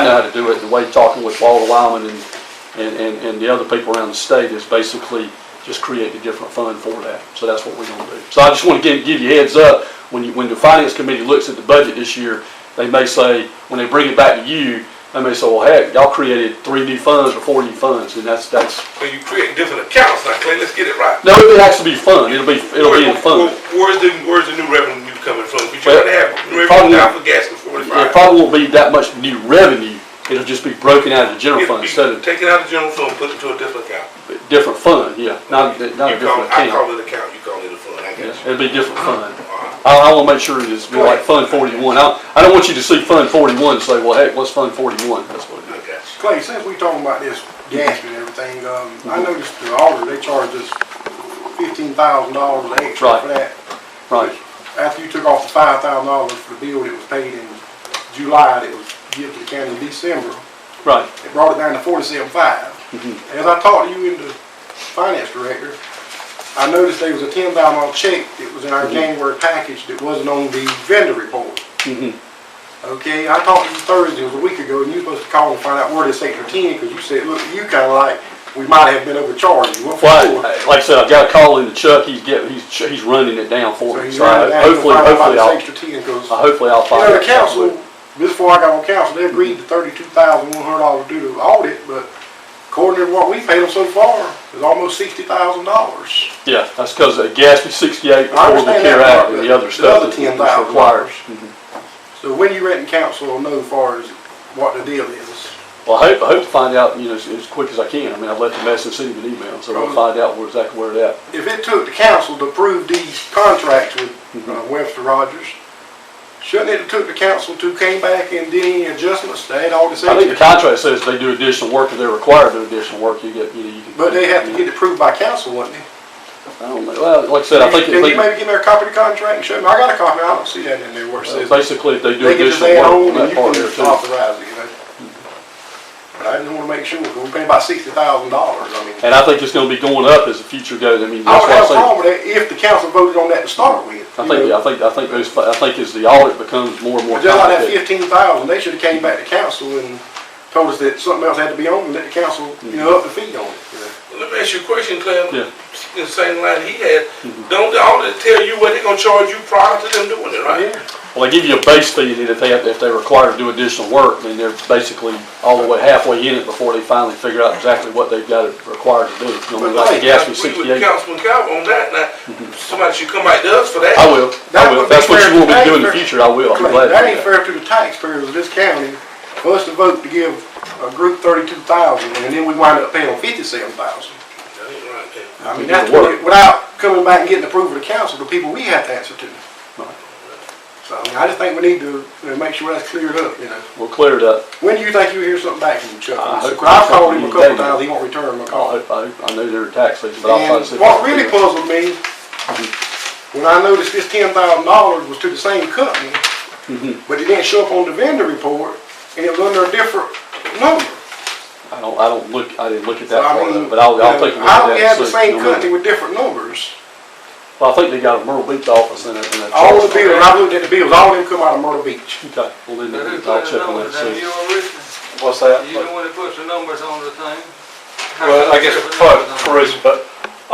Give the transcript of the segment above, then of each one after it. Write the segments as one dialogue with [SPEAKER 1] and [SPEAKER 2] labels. [SPEAKER 1] how to do it, the way talking with Walter Wyman and, and, and, and the other people around the state is basically just create a different fund for that. So that's what we're gonna do. So I just wanna give, give you heads up, when you, when the finance committee looks at the budget this year, they may say, when they bring it back to you, they may say, well, heck, y'all created three new funds or four new funds, and that's, that's,
[SPEAKER 2] Well, you create different accounts now, Clay, let's get it right.
[SPEAKER 1] no, it has to be fund, it'll be, it'll be in
[SPEAKER 2] Where-
[SPEAKER 1] fund.
[SPEAKER 2] where- Where's the, where's the new revenue coming from? You're trying to have new
[SPEAKER 1] Probably-
[SPEAKER 2] revenue now for gas and
[SPEAKER 1] It
[SPEAKER 2] forty-five.
[SPEAKER 1] probably won't be that much new revenue, it'll just be broken out of the general fund instead of
[SPEAKER 2] Take it out of the general fund, put it to a different account.
[SPEAKER 1] Different fund, yeah, not,
[SPEAKER 2] You
[SPEAKER 1] not a
[SPEAKER 2] call-
[SPEAKER 1] different
[SPEAKER 2] I
[SPEAKER 1] account.
[SPEAKER 2] call it account, you call it a fund, I
[SPEAKER 1] Yeah,
[SPEAKER 2] guess.
[SPEAKER 1] It'd be different fund.
[SPEAKER 2] Alright.
[SPEAKER 1] I, I wanna make sure it's more like Fund forty-one. I, I don't want you to see Fund forty-one and say, well, heck, what's Fund forty-one? That's what
[SPEAKER 2] I
[SPEAKER 1] it is.
[SPEAKER 2] got you.
[SPEAKER 3] Clay, since we talking about this gas and everything, um, I noticed the auditor, they charged us fifteen thousand dollars extra
[SPEAKER 1] Right.
[SPEAKER 3] for that.
[SPEAKER 1] Right,
[SPEAKER 3] After you took off the five thousand dollars for the bill that was paid in July, that was given to the county in December,
[SPEAKER 1] right.
[SPEAKER 3] it brought it down to forty-seven five.
[SPEAKER 1] Mm-hmm.
[SPEAKER 3] As I talked to you and the finance director, I noticed there was a ten thousand dollar check that was in our
[SPEAKER 1] Mm-hmm.
[SPEAKER 3] January package that wasn't on the vendor report.
[SPEAKER 1] Mhm.
[SPEAKER 3] Okay, I talked to you Thursday, it was a week ago, and you were supposed to call and find out where this extra ten, because you said, look, you kinda like, we might have been overcharged, you went for
[SPEAKER 1] Well,
[SPEAKER 3] four.
[SPEAKER 1] I- like I said, I've got a call into Chuck, he's getting, he's, he's running it down for
[SPEAKER 3] So
[SPEAKER 1] me.
[SPEAKER 3] you
[SPEAKER 1] So
[SPEAKER 3] ran
[SPEAKER 1] I-
[SPEAKER 3] it out, you
[SPEAKER 1] hopefully,
[SPEAKER 3] find out about
[SPEAKER 1] hopefully
[SPEAKER 3] this
[SPEAKER 1] I'll,
[SPEAKER 3] extra ten, because,
[SPEAKER 1] I-
[SPEAKER 3] you
[SPEAKER 1] hopefully I'll find.
[SPEAKER 3] know,
[SPEAKER 1] out.
[SPEAKER 3] the council, before I got on council, they agreed to thirty-two thousand one hundred dollars due to the audit, but according to what we paid them so far, it's almost sixty thousand dollars.
[SPEAKER 1] Yeah, that's cause of Gatsby sixty-eight,
[SPEAKER 3] I
[SPEAKER 1] before the
[SPEAKER 3] understand
[SPEAKER 1] CARE
[SPEAKER 3] that part,
[SPEAKER 1] Act and
[SPEAKER 3] but
[SPEAKER 1] the other
[SPEAKER 3] the
[SPEAKER 1] stuff
[SPEAKER 3] other
[SPEAKER 1] that Mm-hmm. was
[SPEAKER 3] $10,000.
[SPEAKER 1] required.
[SPEAKER 3] So when you reckon council will know far as what the deal is?
[SPEAKER 1] Well, I hope, I hope to find out, you know, as, as quick as I can. I mean, I've left the message, sent him an email, so I'll
[SPEAKER 3] Probably.
[SPEAKER 1] find out where, exactly where it at.
[SPEAKER 3] If it took the council to approve these contracts with uh,
[SPEAKER 1] Mm-hmm.
[SPEAKER 3] Webster Rogers, shouldn't it have took the council to came back and did any adjustments to add all this
[SPEAKER 1] I think the
[SPEAKER 3] extra?
[SPEAKER 1] contract says they do additional work, if they're required to do additional work, you get, you know, you can.
[SPEAKER 3] But they have to get it approved by council, wouldn't they?
[SPEAKER 1] I don't know, well, like I said, I think,
[SPEAKER 3] Can you
[SPEAKER 1] if
[SPEAKER 3] maybe give me a copy of the contract and show me? I got a copy, I don't see that in there where it
[SPEAKER 1] they,
[SPEAKER 3] says.
[SPEAKER 1] uh, basically, if they do
[SPEAKER 3] They can just
[SPEAKER 1] additional work,
[SPEAKER 3] add
[SPEAKER 1] on
[SPEAKER 3] on and
[SPEAKER 1] that
[SPEAKER 3] you
[SPEAKER 1] part
[SPEAKER 3] can
[SPEAKER 1] there
[SPEAKER 3] just
[SPEAKER 1] too.
[SPEAKER 3] authorize it, you know? But I just wanna make sure, 'cause we paid about sixty thousand dollars, I mean.
[SPEAKER 1] And I think it's gonna be going up as the future goes, I mean,
[SPEAKER 3] Oh,
[SPEAKER 1] that's
[SPEAKER 3] I
[SPEAKER 1] why
[SPEAKER 3] would
[SPEAKER 1] I
[SPEAKER 3] have a
[SPEAKER 1] say,
[SPEAKER 3] problem with that if the council voted on that to start with.
[SPEAKER 1] I
[SPEAKER 3] you
[SPEAKER 1] think,
[SPEAKER 3] know.
[SPEAKER 1] I think, I think those, I think as the audit becomes more and more
[SPEAKER 3] Just like that
[SPEAKER 1] complicated.
[SPEAKER 3] fifteen thousand, they should have came back to council and told us that something else had to be on and let the council, you know, up the fee on it. you know.
[SPEAKER 2] Well, Let me ask you a question, Clay.
[SPEAKER 1] Yeah. Mm-hmm.
[SPEAKER 2] The same line he had, don't the auditor tell you what they gonna charge you prior to them doing it, right?
[SPEAKER 3] Yeah,
[SPEAKER 1] Well, they give you a base fee, and if they, have- if they're required to do additional work, then they're basically all the way halfway in it before they finally figure out exactly what they've got required to do. You know, like
[SPEAKER 3] But
[SPEAKER 1] the
[SPEAKER 2] Now,
[SPEAKER 1] Gatsby
[SPEAKER 2] We with
[SPEAKER 1] sixty-eight, Mm-hmm.
[SPEAKER 2] Councilman Calvin on that, now, somebody should come out to us for that.
[SPEAKER 1] I will,
[SPEAKER 3] That
[SPEAKER 1] I will,
[SPEAKER 3] would
[SPEAKER 1] if that's
[SPEAKER 3] be
[SPEAKER 1] what
[SPEAKER 3] fair
[SPEAKER 1] you want me to
[SPEAKER 3] to
[SPEAKER 1] do in the
[SPEAKER 3] taxpayers.
[SPEAKER 1] future, I will, I'm
[SPEAKER 3] Clay,
[SPEAKER 1] glad to do
[SPEAKER 3] That ain't
[SPEAKER 1] that.
[SPEAKER 3] fair to the taxpayers of this county for us to vote to give a group thirty-two thousand and then we wind up paying fifty-seven thousand.
[SPEAKER 2] That ain't right, Clay.
[SPEAKER 3] I mean,
[SPEAKER 1] It didn't
[SPEAKER 3] that's
[SPEAKER 1] work.
[SPEAKER 3] what- without coming back and getting approval of the council, the people we have to answer to. So, I mean, I just think we need to, you know, make sure that's cleared up, you know.
[SPEAKER 1] We'll clear it up.
[SPEAKER 3] When do you think you'll hear something back from Chuck?
[SPEAKER 1] I hope-
[SPEAKER 3] I've called him a
[SPEAKER 1] Day.
[SPEAKER 3] couple times, he won't return my
[SPEAKER 1] I,
[SPEAKER 3] call.
[SPEAKER 1] hope- I, hope- I know they're tax leaks, but I'll try to see. if
[SPEAKER 3] And
[SPEAKER 1] I
[SPEAKER 3] what
[SPEAKER 1] can
[SPEAKER 3] really
[SPEAKER 1] figure it out.
[SPEAKER 3] puzzled me, when I noticed this ten thousand dollars was to the same company,
[SPEAKER 1] Mm-hmm.
[SPEAKER 3] but it didn't show up on the vendor report, and it was under a different number.
[SPEAKER 1] I don't, I don't look, I didn't look at
[SPEAKER 3] So
[SPEAKER 1] that
[SPEAKER 3] I
[SPEAKER 1] part of
[SPEAKER 3] mean,
[SPEAKER 1] it, but I'll, I'll take a look at
[SPEAKER 3] How
[SPEAKER 1] that.
[SPEAKER 3] we
[SPEAKER 1] and
[SPEAKER 3] have the
[SPEAKER 1] see,
[SPEAKER 3] same
[SPEAKER 1] you know.
[SPEAKER 3] company with different numbers?
[SPEAKER 1] Well, I think they got a Myrtle Beach office in it, in that.
[SPEAKER 3] All the
[SPEAKER 1] charge.
[SPEAKER 3] bills, I looked at the bills, all of them come out of Myrtle Beach.
[SPEAKER 1] Okay, well then,
[SPEAKER 4] But who
[SPEAKER 1] I'll
[SPEAKER 4] put the
[SPEAKER 1] check on that,
[SPEAKER 4] numbers, now
[SPEAKER 1] see.
[SPEAKER 4] you or Richard?
[SPEAKER 5] What's that?
[SPEAKER 4] You the one that puts the numbers on the thing? How
[SPEAKER 5] Well,
[SPEAKER 4] come
[SPEAKER 5] I guess
[SPEAKER 4] you
[SPEAKER 5] it's
[SPEAKER 4] put
[SPEAKER 5] part
[SPEAKER 4] the
[SPEAKER 5] of
[SPEAKER 4] numbers on it?
[SPEAKER 5] tourism, but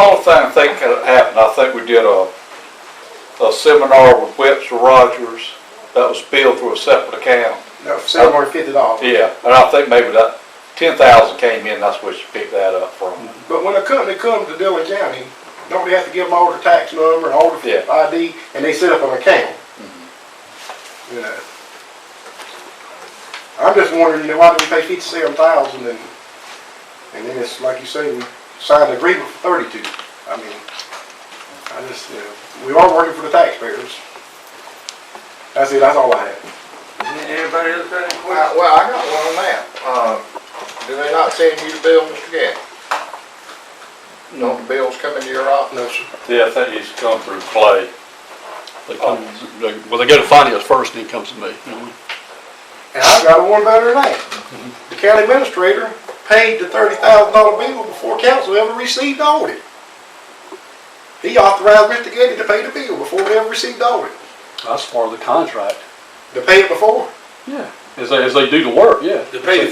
[SPEAKER 5] only thing I think that happened, I think we did a, a seminar with Webster Rogers that was billed through a separate account.
[SPEAKER 3] No, seven hundred fifty dollars.
[SPEAKER 5] Yeah, and I think maybe that ten thousand came in, that's where she picked that up from.
[SPEAKER 3] But when a company comes to Dillon County, don't they have to give them all the tax number and all the
[SPEAKER 5] Yeah.
[SPEAKER 3] ID, and they set up an account? You know? I'm just wondering, you know, why do we pay fifty-seven thousand and, and then it's, like you say, we signed an agreement for thirty-two? I mean, I just, you know, we are working for the taxpayers. That's it, that's all I have.
[SPEAKER 4] Anybody else got any
[SPEAKER 6] Well,
[SPEAKER 4] questions?
[SPEAKER 6] well, I got one on that. Um, do they not send you the bill, Mr. Gatt? Don't the bills come into your office?
[SPEAKER 3] Uh, No, sir.
[SPEAKER 5] Yeah, I think it's come through Clay.
[SPEAKER 1] They come, they- well, they go to finance first, and then comes to me. you know.
[SPEAKER 3] And I've got one better than that. The county administrator paid the thirty thousand dollar bill before council ever received audit. He authorized Mr. Getty to pay the bill before we ever received audit.
[SPEAKER 1] That's part of the contract.
[SPEAKER 3] To pay it before?
[SPEAKER 1] Yeah.
[SPEAKER 7] as they, as they do the work, yeah.
[SPEAKER 1] To pay the